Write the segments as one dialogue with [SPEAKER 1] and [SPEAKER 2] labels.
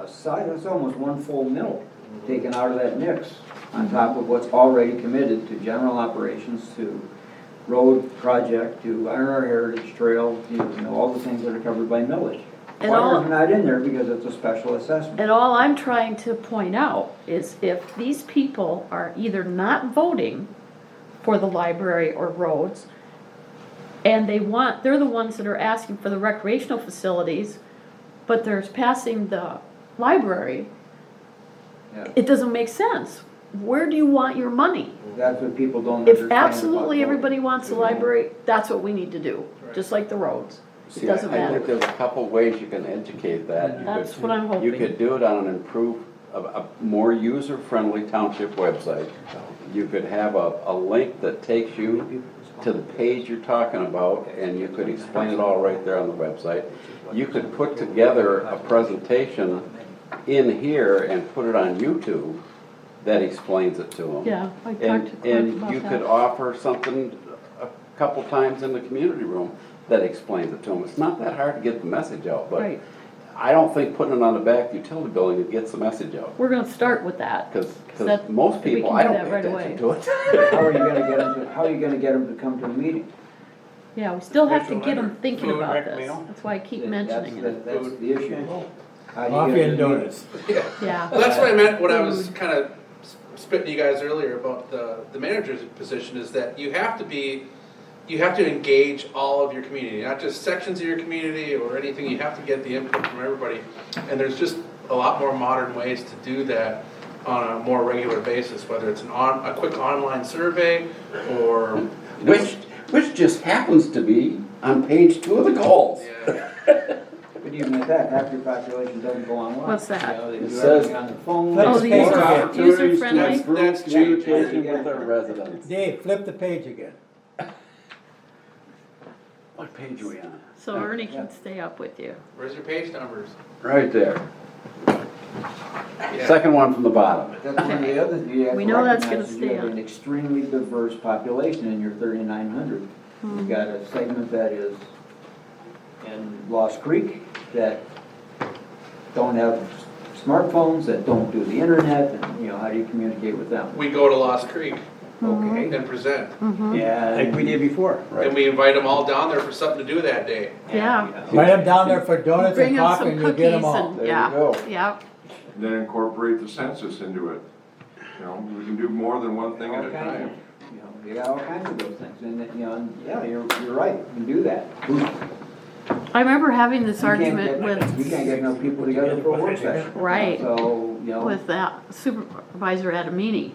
[SPEAKER 1] a side, that's almost one full mill taken out of that mix, on top of what's already committed to general operations, to road project, to Iron Ore Heritage Trail, you know, all the things that are covered by millage.
[SPEAKER 2] And
[SPEAKER 1] Water's
[SPEAKER 2] all-
[SPEAKER 1] not in there because it's a special assessment.
[SPEAKER 2] And all I'm trying to point out is if these people are either not voting for the library or roads, and they want, they're the ones that are asking for the recreational facilities, but they're passing the library,
[SPEAKER 1] Yeah.
[SPEAKER 2] it doesn't make sense. Where do you want your money?
[SPEAKER 1] That's what people don't understand
[SPEAKER 2] If
[SPEAKER 1] about
[SPEAKER 2] absolutely
[SPEAKER 1] voting.
[SPEAKER 2] everybody wants the library, that's what we need to do, just like the roads. It
[SPEAKER 3] See, I I
[SPEAKER 2] doesn't
[SPEAKER 3] think
[SPEAKER 2] matter.
[SPEAKER 3] there's a couple ways you can educate that. You could-
[SPEAKER 2] That's what I'm
[SPEAKER 3] You
[SPEAKER 2] hoping.
[SPEAKER 3] could do it on an improved, a, a more user-friendly township website. You could have a, a link that takes you to the page you're talking about, and you could explain it all right there on the website. You could put together a presentation in here and put it on YouTube that explains it to them.
[SPEAKER 2] Yeah, I
[SPEAKER 3] And,
[SPEAKER 2] talked to Clint
[SPEAKER 3] and you
[SPEAKER 2] about
[SPEAKER 3] could
[SPEAKER 2] that.
[SPEAKER 3] offer something a couple times in the community room that explains it to them. It's not that hard to get the message out, but
[SPEAKER 2] Right.
[SPEAKER 3] I don't think putting it on the back utility building gets the message out.
[SPEAKER 2] We're gonna start with that.
[SPEAKER 3] Cause, cause
[SPEAKER 2] That-
[SPEAKER 3] most
[SPEAKER 2] we
[SPEAKER 3] people,
[SPEAKER 2] can
[SPEAKER 3] I
[SPEAKER 2] do
[SPEAKER 3] don't
[SPEAKER 2] that
[SPEAKER 3] pay
[SPEAKER 2] right
[SPEAKER 3] attention
[SPEAKER 2] away.
[SPEAKER 3] to it.
[SPEAKER 1] How are you gonna get them, to- how are you gonna get 'em to come to a meeting?
[SPEAKER 2] Yeah, we still have to get them
[SPEAKER 4] Visual
[SPEAKER 2] thinking
[SPEAKER 4] effort. Food,
[SPEAKER 2] about
[SPEAKER 4] rec
[SPEAKER 2] this.
[SPEAKER 4] meal.
[SPEAKER 2] That's why I keep
[SPEAKER 1] That- that's
[SPEAKER 2] mentioning
[SPEAKER 1] the-
[SPEAKER 2] it.
[SPEAKER 1] That's the issue. How do you
[SPEAKER 5] Coffee
[SPEAKER 1] get 'em
[SPEAKER 5] and
[SPEAKER 1] to a meeting?
[SPEAKER 5] donuts.
[SPEAKER 2] Yeah,
[SPEAKER 4] Well, that's what I meant when I was kind of spitting to you guys earlier about the, the manager's position is that you have to be, you have to engage all of your community, not just sections of your community or anything, you have to get the input from everybody. And there's just a lot more modern ways to do that on a more regular basis, whether it's an on, a quick online survey or.
[SPEAKER 3] Which, which just happens to be on page two of the goals.
[SPEAKER 4] Yeah,
[SPEAKER 1] But even at that, half your population doesn't go online.
[SPEAKER 2] What's that?
[SPEAKER 1] You know, they
[SPEAKER 3] It
[SPEAKER 1] do
[SPEAKER 3] says-
[SPEAKER 1] everything on the phone.
[SPEAKER 5] Oh,
[SPEAKER 1] It's
[SPEAKER 2] the
[SPEAKER 1] more-
[SPEAKER 5] user-
[SPEAKER 1] Yeah,
[SPEAKER 3] Opportunities to
[SPEAKER 2] user-friendly?
[SPEAKER 3] improve
[SPEAKER 4] That's changing.
[SPEAKER 3] Communication with their residents.
[SPEAKER 5] Dave, flip the page again.
[SPEAKER 3] What page are we on?
[SPEAKER 2] so Ernie can stay up with you.
[SPEAKER 4] where's your page numbers?
[SPEAKER 3] Right there.
[SPEAKER 4] Yeah.
[SPEAKER 3] Second one from the bottom.
[SPEAKER 1] That's one of the other, you have
[SPEAKER 2] Oh, We
[SPEAKER 1] to
[SPEAKER 2] know that's
[SPEAKER 1] recognize is
[SPEAKER 2] gonna
[SPEAKER 1] you
[SPEAKER 2] stay
[SPEAKER 1] have
[SPEAKER 2] on.
[SPEAKER 1] an extremely diverse population in your thirty-nine hundred.
[SPEAKER 2] Hmm.
[SPEAKER 1] You've got a segment that is in Lost Creek that don't have smartphones, that don't do the internet, and, you know, how do you communicate with them?
[SPEAKER 4] We go to Lost Creek
[SPEAKER 2] Hmm.
[SPEAKER 1] Okay,
[SPEAKER 4] and present,
[SPEAKER 1] yeah.
[SPEAKER 5] Like we did before.
[SPEAKER 4] and we invite them all down there for something to do that day.
[SPEAKER 2] Yeah.
[SPEAKER 5] Write them down there for donuts
[SPEAKER 2] Bring
[SPEAKER 5] and
[SPEAKER 2] them
[SPEAKER 5] coffee
[SPEAKER 2] some
[SPEAKER 5] and you'll get
[SPEAKER 2] cookies
[SPEAKER 5] them all.
[SPEAKER 2] and,
[SPEAKER 3] There you
[SPEAKER 2] yeah,
[SPEAKER 3] go.
[SPEAKER 2] yeah.
[SPEAKER 6] then incorporate the census into it. You know, we can do more than one thing at a time.
[SPEAKER 1] You know, You got all kinds of those things, and, you know, and, yeah, you're, you're right, you can do that. Who's
[SPEAKER 2] I remember having this
[SPEAKER 1] You can't
[SPEAKER 2] argument
[SPEAKER 1] get- You
[SPEAKER 2] with,
[SPEAKER 1] can't get enough people together for a work session.
[SPEAKER 2] Right.
[SPEAKER 1] So, you know,
[SPEAKER 2] with that supervisor Adamini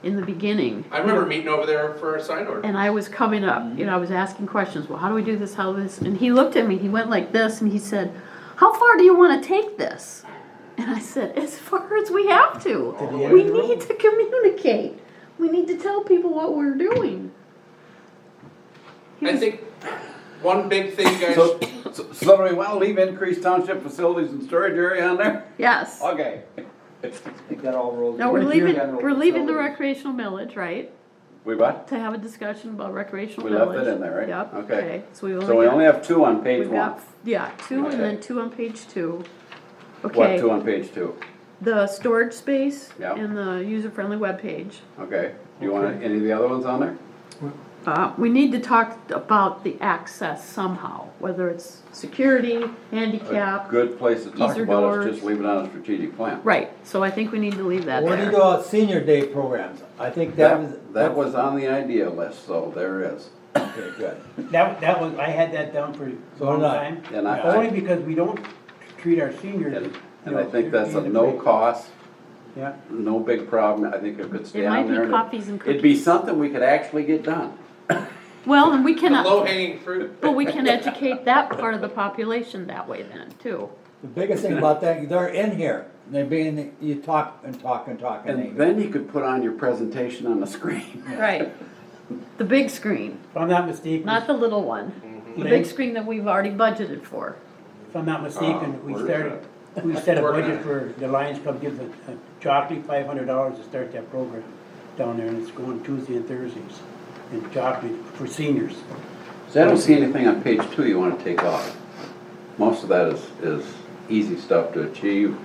[SPEAKER 2] in the beginning.
[SPEAKER 4] I remember meeting over there for a sign order.
[SPEAKER 2] And I was coming up, you know, I was asking questions, well, how do we do this, how this, and he looked at me, he went like this, and he said, how far do you wanna take this? And I said, as far as we have to,
[SPEAKER 5] the end
[SPEAKER 2] we
[SPEAKER 5] of the
[SPEAKER 2] need to communicate, we need to tell people what we're doing. He
[SPEAKER 4] I
[SPEAKER 2] was-
[SPEAKER 4] think one big thing you guys,
[SPEAKER 3] So, so- so do we want to leave increased township facilities and storage area on there?
[SPEAKER 2] Yes.
[SPEAKER 3] Okay.
[SPEAKER 1] I think that all rolls.
[SPEAKER 2] No, we're
[SPEAKER 1] into
[SPEAKER 2] leaving,
[SPEAKER 1] general
[SPEAKER 2] we're leaving the
[SPEAKER 1] facilities.
[SPEAKER 2] recreational millage, right?
[SPEAKER 3] We what?
[SPEAKER 2] To have a discussion about recreational
[SPEAKER 3] We
[SPEAKER 2] millage.
[SPEAKER 3] left that in there, right?
[SPEAKER 2] Yep,
[SPEAKER 3] Okay.
[SPEAKER 2] okay, so we've
[SPEAKER 3] So we only
[SPEAKER 2] only got,
[SPEAKER 3] have two on page
[SPEAKER 2] we've
[SPEAKER 3] one.
[SPEAKER 2] got, yeah, two and
[SPEAKER 3] Okay.
[SPEAKER 2] then two on page two.
[SPEAKER 3] What,
[SPEAKER 2] Okay,
[SPEAKER 3] two on page two?
[SPEAKER 2] the storage space
[SPEAKER 3] Yeah.
[SPEAKER 2] and the user-friendly webpage.
[SPEAKER 3] Okay. Do you want any of the other ones on there?
[SPEAKER 2] Uh, we need to talk about the access somehow, whether it's security,
[SPEAKER 3] A
[SPEAKER 2] handicap,
[SPEAKER 3] Good place to talk
[SPEAKER 2] Easier
[SPEAKER 3] about is
[SPEAKER 2] doors.
[SPEAKER 3] just leave it on a strategic plan.
[SPEAKER 2] right, so I think we need to leave that
[SPEAKER 5] What do you do
[SPEAKER 2] there.
[SPEAKER 5] about senior day programs? I think that was.
[SPEAKER 3] That, that was on the idea list, so there is.
[SPEAKER 5] Okay, good.
[SPEAKER 7] That, that was, I had that down for a
[SPEAKER 5] So
[SPEAKER 7] long
[SPEAKER 5] did I.
[SPEAKER 7] time.
[SPEAKER 3] And I-
[SPEAKER 7] Only because we don't treat our seniors.
[SPEAKER 3] And,
[SPEAKER 7] you
[SPEAKER 3] and
[SPEAKER 7] know,
[SPEAKER 3] I think that's a
[SPEAKER 7] in the
[SPEAKER 3] no
[SPEAKER 7] way-
[SPEAKER 3] cost,
[SPEAKER 7] Yeah,
[SPEAKER 3] no big problem. I think it could stay
[SPEAKER 2] It might
[SPEAKER 3] on
[SPEAKER 2] be
[SPEAKER 3] there. and it-
[SPEAKER 2] coffees and
[SPEAKER 3] It'd be
[SPEAKER 2] cookies.
[SPEAKER 3] something we could actually get done.
[SPEAKER 2] Well, and we
[SPEAKER 4] the
[SPEAKER 2] cannot.
[SPEAKER 4] low hanging fruit.
[SPEAKER 2] But we can educate that part of the population that way then, too.
[SPEAKER 5] The biggest thing about that, they're in here. They're being, you talk and talk and talk and
[SPEAKER 3] And
[SPEAKER 5] they.
[SPEAKER 3] then you could put on your presentation on the screen.
[SPEAKER 2] Right. The big screen,
[SPEAKER 7] if I'm not mistaken,
[SPEAKER 2] not the little one. The big screen that we've already budgeted for.
[SPEAKER 7] if I'm not mistaken,
[SPEAKER 6] Ah,
[SPEAKER 7] we
[SPEAKER 6] where is
[SPEAKER 7] started, we set a
[SPEAKER 4] Working on
[SPEAKER 7] budget
[SPEAKER 4] it.
[SPEAKER 7] for the Lions Club, gives a, a Jopley five hundred dollars to start that program down there, and it's going Tuesday and Thursdays in Jopley for seniors.
[SPEAKER 3] So I don't see anything on page two you wanna take off. Most of that is, is easy stuff to achieve.